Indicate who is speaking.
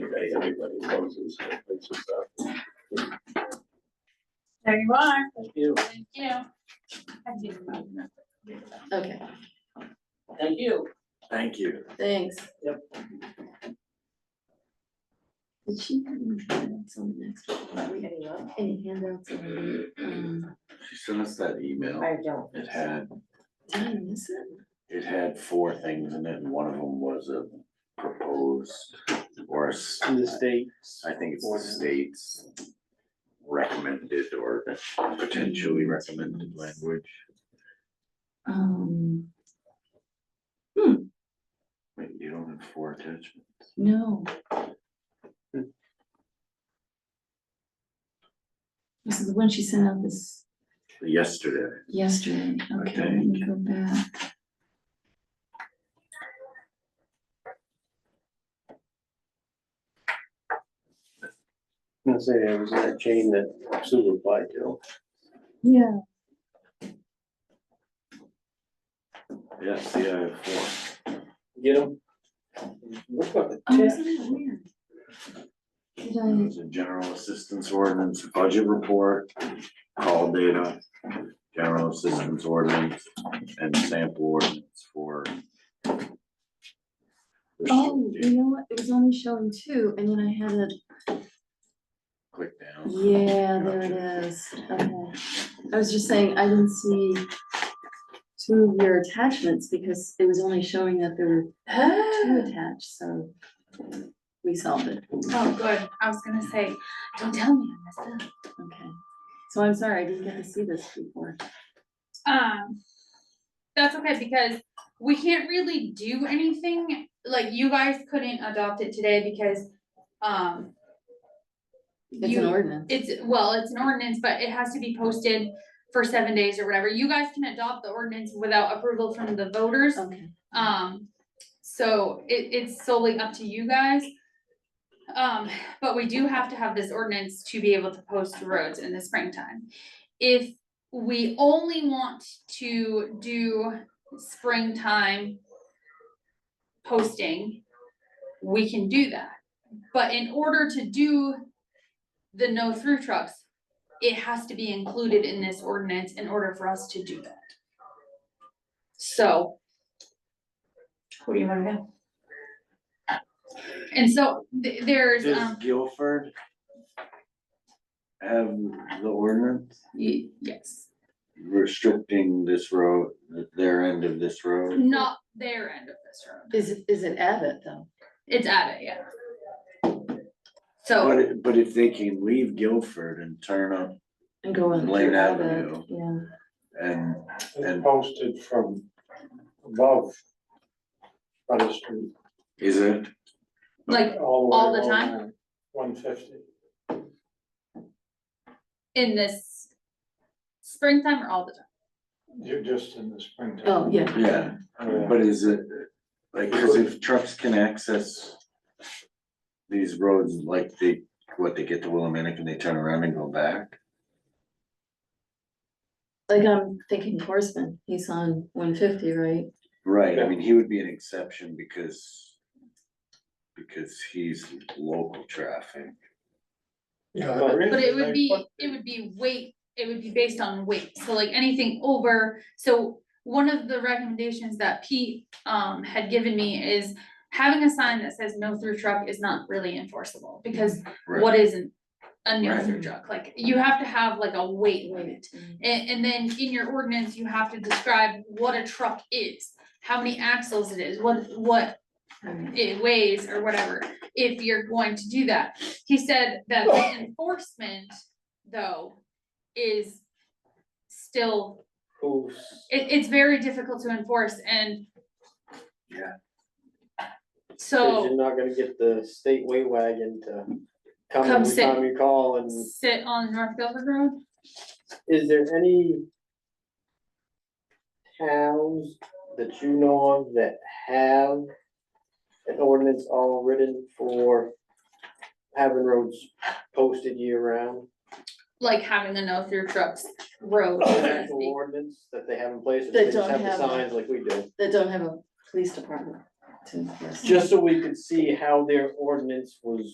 Speaker 1: day, everybody closes. It's just, uh,
Speaker 2: There you are.
Speaker 3: Thank you.
Speaker 2: Thank you. I do.
Speaker 4: Okay,
Speaker 3: Thank you.
Speaker 1: Thank you.
Speaker 4: thanks.
Speaker 3: Yep.
Speaker 4: Did she have any handouts on the next one? Any handouts on, the, um,
Speaker 1: She sent us that email.
Speaker 5: I don't.
Speaker 1: It had,
Speaker 4: did I miss it?
Speaker 1: it had four things in it, and one of them was a proposed or a s-
Speaker 3: To the state.
Speaker 1: I think it's the state's recommended or potentially recommended language.
Speaker 4: Um,
Speaker 1: Wait, you don't have four attachments?
Speaker 4: no.
Speaker 3: Hmm.
Speaker 4: This is the one she sent out this
Speaker 1: Yesterday,
Speaker 4: yesterday, okay, let
Speaker 1: think.
Speaker 4: me go back.
Speaker 3: I'm gonna say there was that chain that Sue applied to.
Speaker 4: Yeah.
Speaker 1: yes, yeah, I have four.
Speaker 3: Get them? Look like a
Speaker 4: Oh,
Speaker 3: test.
Speaker 4: isn't that weird? Did
Speaker 1: It
Speaker 4: I,
Speaker 1: was a general assistance ordinance, budget report, call data, general assistance ordinance, and sample ordinance for.
Speaker 4: oh, you know what, it was only showing two, and then I had a
Speaker 1: Click down.
Speaker 4: Yeah, there it is, okay. I was just saying, I didn't see two of your attachments because it was only showing that there were two attached, so we solved it,
Speaker 2: Oh, good. I was gonna say, don't tell me I messed up.
Speaker 4: okay. So I'm sorry, I didn't get to see this before.
Speaker 2: Um, that's okay because we can't really do anything. Like you guys couldn't adopt it today because, um,
Speaker 4: It's an
Speaker 2: you-
Speaker 4: ordinance.
Speaker 2: It's, well, it's an ordinance, but it has to be posted for seven days or whatever. You guys can adopt the ordinance without approval from the voters.
Speaker 4: Okay,
Speaker 2: Um, so it, it's solely up to you guys. Um, but we do have to have this ordinance to be able to post roads in the springtime. If we only want to do springtime posting, we can do that. But in order to do the no through trucks, it has to be included in this ordinance in order for us to do that. So what do you wanna know? And so th- there's,
Speaker 1: Does
Speaker 2: um,
Speaker 1: Guilford have the ordinance
Speaker 2: y- yes,
Speaker 1: restricting this road, their end of this road?
Speaker 2: not their end of this road.
Speaker 4: is, it- is it Abbott though?
Speaker 2: It's at it, yeah. So,
Speaker 1: But, it- but if they can leave Guilford and turn up
Speaker 4: And go on
Speaker 1: Blaine
Speaker 4: through Abbott,
Speaker 1: Avenue.
Speaker 4: yeah,
Speaker 1: and,
Speaker 6: It's
Speaker 1: and
Speaker 6: posted from above on the street.
Speaker 1: is it?
Speaker 2: like, all
Speaker 6: All
Speaker 2: the
Speaker 6: the way
Speaker 2: time?
Speaker 6: along one fifty.
Speaker 2: in this springtime or all the time?
Speaker 6: You're just in the springtime.
Speaker 4: oh, yeah.
Speaker 1: Yeah.
Speaker 6: Yeah.
Speaker 1: But is it, like, cause if trucks can access these roads, like they, what, they get to Willamette and they turn around and go back?
Speaker 4: Like I'm thinking Horseman, he's on one fifty, right?
Speaker 1: Right, I mean, he would be an exception because, because he's local traffic.
Speaker 6: Yeah, the reason
Speaker 2: But it
Speaker 6: they
Speaker 2: would be,
Speaker 6: put-
Speaker 2: it would be weight, it would be based on weight, so like anything over, so one of the recommendations that Pete um had given me is having a sign that says no through truck is not really enforceable, because
Speaker 1: Right.
Speaker 2: what isn't a no
Speaker 1: Right. Mm-hmm.
Speaker 2: through truck, like you have to have like a weight limit.
Speaker 4: Mhm.
Speaker 2: And, and then in your ordinance, you have to describe what a truck is, how many axles it is, what, what
Speaker 1: Mm-hmm.
Speaker 4: Alright.
Speaker 2: it weighs or whatever, if you're going to do that. He said that the enforcement, though, is still,
Speaker 3: Who's-
Speaker 2: it, it's very difficult to enforce and
Speaker 1: Yeah.
Speaker 3: Cause
Speaker 2: so
Speaker 3: you're not gonna get the state way wagon to come
Speaker 2: Come
Speaker 3: every
Speaker 2: sit.
Speaker 3: time you call and
Speaker 2: sit on North Guilford Road.
Speaker 3: is there any towns that you know of that have an ordinance all written for having roads posted year round?
Speaker 2: Like having a no through trucks
Speaker 3: Oh,
Speaker 2: road. so to
Speaker 3: Actual
Speaker 2: speak.
Speaker 3: ordinance that they have in place, or
Speaker 4: That
Speaker 3: they just
Speaker 4: don't
Speaker 3: have the
Speaker 4: have a-
Speaker 3: signs like we do?
Speaker 4: That don't have a police department. to.
Speaker 3: just so we could see how their ordinance was